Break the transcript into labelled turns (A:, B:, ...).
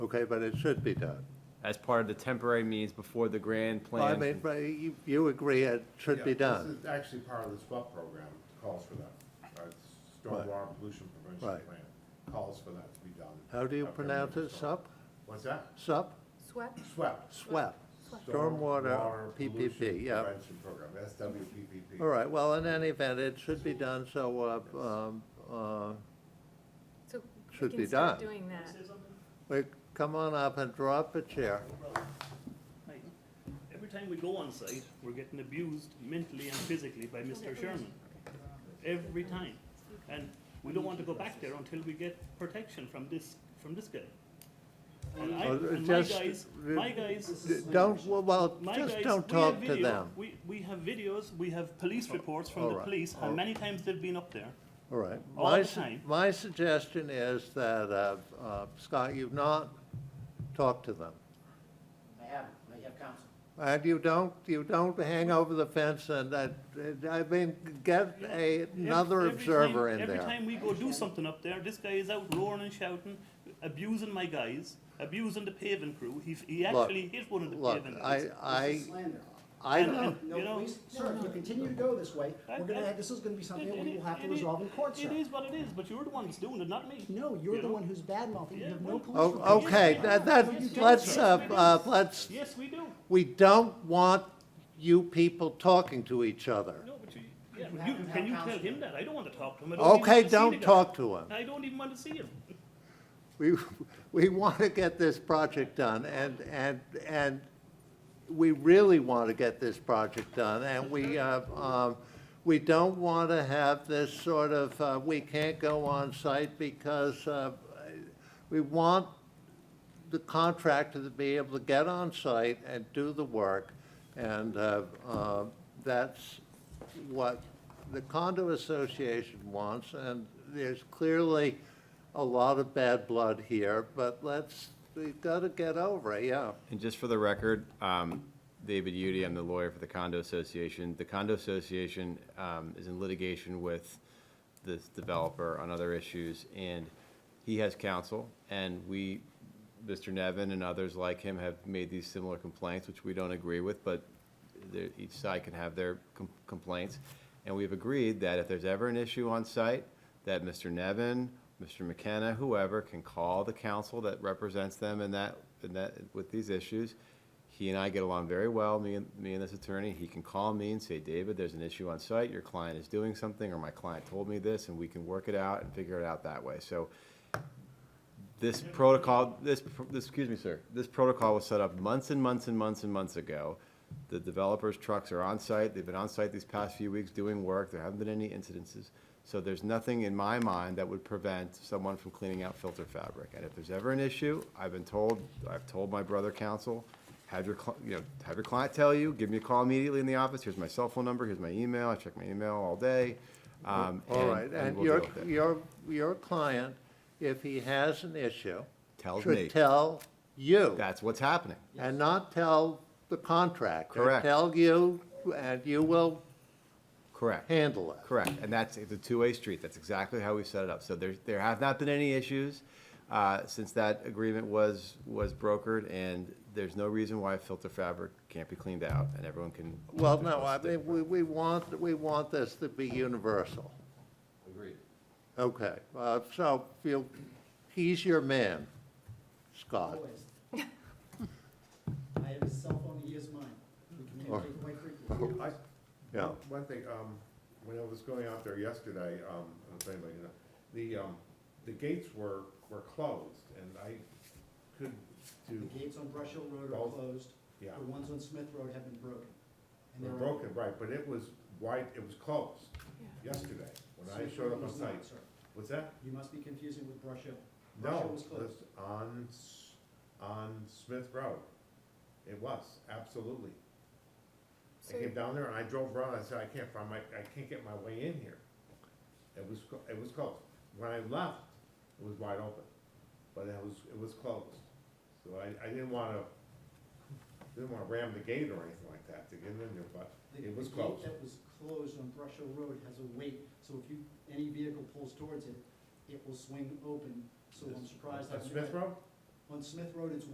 A: okay, but it should be done.
B: as part of the temporary means before the grand
A: Well, I
B: plan.
A: mean, but you, you agree it should be
C: Yeah,
A: done,
C: This is actually part of the SWAP program, calls for that. Uh, it's
A: Right.
C: Stormwater pollution prevention
A: Right.
C: plan calls for that to be done.
A: How do you
C: Up every
A: pronounce
C: year,
A: it?
C: so-
A: Sup?
C: What's that?
A: sup,
D: Swept?
C: SWAP.
A: swep. Stormwater
C: Stormwater
A: PPP,
C: Pollution
A: yeah.
C: Prevention Program, SWPPP.
A: All right, well, in any event, it should be done, so, uh, um, uh,
D: So we
A: Should be
D: can start
A: done.
D: doing that.
A: wait, come on up and draw up a chair.
E: Hey, Every time we go on site, we're getting abused mentally and physically by Mr. Sherman. Every time. And we don't want to go back there until we get protection from this, from this guy. And I,
A: Oh,
E: and my
A: just-
E: guys, my guys.
A: Don't, well, well,
E: my
A: just
E: guys,
A: don't
E: we have
A: talk to
E: video-
A: them.
E: We, we have videos, we have police reports from the
A: alright,
E: police, how
A: alright.
E: many times they've been up there.
A: All right.
E: all
A: My
E: the
A: su-
E: time.
A: My suggestion is that, uh, uh, Scott, you've not talked to them.
F: I haven't, I have counsel.
A: And you don't, you don't hang over the fence and, uh, I mean, get a-
E: Ev-
A: another
E: every
A: observer
E: time-
A: in
E: Every
A: there.
E: time we go do something up there, this guy is out roaring and shouting, abusing my guys, abusing the paving crew. He, he
A: Look,
E: actually hit one of the
A: Look,
E: paving
A: I,
E: crews.
F: This
A: I,
F: is slander.
A: I
E: And-
A: don't,
E: and-
F: No,
E: You know-
F: please, sir, if you continue to go this way,
E: I-
F: we're gonna,
E: I-
F: have- this is gonna be something
E: It-
F: that we
E: it-
F: will have to
E: it-
F: resolve in court, sir.
E: It is what it is, but you're the one that's doing it, not me.
F: No, you're
E: You
F: the
E: know?
F: one who's bad mouthing, you
E: Yeah,
F: have no
E: well-
F: police.
C: Oh,
A: o-
F: report.
A: oh, okay, that, that, let's, uh, uh, let's,
E: Yes, we do.
A: we don't want you people talking to each other.
E: No, but you, yeah,
F: You have
E: you,
F: to have
E: can you tell
F: counsel.
E: him that? I don't want to talk to him. I even
A: Okay,
E: want to see the
A: don't
E: guy.
A: talk to them.
E: I don't even want to see him.
A: We, we want to get this project done, and, and, and we really want to get this project done, and we, uh, um, we don't want to have this sort of, uh, we can't go on site because uh, we want the contractor to be able to get on site and do the work, and uh, uh, that's what the condo association wants, and there's clearly a lot of bad blood here, but let's, we've got to get over it, yeah.
B: And just for the record, um, David Udi, I'm the lawyer for the condo association. The condo association um, is in litigation with this developer on other issues, and he has counsel, and we, Mr. Nevin and others like him have made these similar complaints, which we don't agree with, but there- each side can have their com- complaints. And we've agreed that if there's ever an issue on site, that Mr. Nevin, Mr. McKenna, whoever, can call the council that represents them in that, in that, with these issues. He and I get along very well, me and, me and this attorney. He can call me and say, David, there's an issue on site, your client is doing something, or my client told me this, and we can work it out and figure it out that way. So this protocol, this, pr- this, excuse me, sir, this protocol was set up months and months and months and months ago. The developers' trucks are on site, they've been on site these past few weeks doing work, there haven't been any incidences. So there's nothing in my mind that would prevent someone from cleaning out filter fabric. And if there's ever an issue, I've been told, I've told my brother counsel, have your, cli- you know, have your client tell you, give me a call immediately in the office, here's my cell phone number, here's my email, I check my email all day. um,
A: All right,
B: and
A: and
B: we'll deal
A: your,
B: with it.
A: your, your client, if he has an issue,
B: Tells me.
A: should tell you
B: That's what's happening.
A: and not tell the contractor.
B: Correct.
A: Tell you, and you will
B: Correct.
A: handle it.
B: Correct, and that's, it's a two-way street, that's exactly how we set it up. So there, there have not been any issues uh, since that agreement was, was brokered, and there's no reason why filter fabric can't be cleaned out, and everyone can.
A: Well, no, I mean, we, we want, we want this to be universal.
B: Agreed.
A: Okay, uh, so, you, he's your man, Scott.
F: Always. I have his cell phone, he is mine. We
E: Oh.
F: communicate quite frequently.
C: I-
A: Yeah.
C: One thing, um, when I was going out there yesterday, um, I don't know if anybody knows, the, um, the gates were, were closed, and I couldn't
F: The
C: do,
F: gates on Brush Hill Road are
C: Both.
F: closed,
C: yeah,
F: the ones on Smith Road have been broken. And
C: they
F: they're-
C: broken, right, but it was wide, it was closed
D: Yeah.
C: yesterday, when I
F: Smith
C: showed up
F: Road
C: on
F: was not,
C: site.
F: sir.
C: What's that?
F: You must be confusing with Brush Hill. Brush Hill
C: No,
F: was
C: it
F: closed.
C: was on, S- on Smith Road. It was, absolutely. I
D: So
C: came down there and I drove around, I said, I can't find my, I can't get my way in here. It was, clo- it was closed. When I left, it was wide open, but it was, it was closed. So I, I didn't wanna, didn't wanna ram the gate or anything like that to get in there, but
F: The-
C: it was
F: the gate
C: closed.
F: That was closed on Brush Hill Road has a weight, so if you, any vehicle pulls towards it, it will swing open, so I'm surprised.
C: On
F: I've
C: Smith
F: never-
C: Road?
F: On Smith Road, it's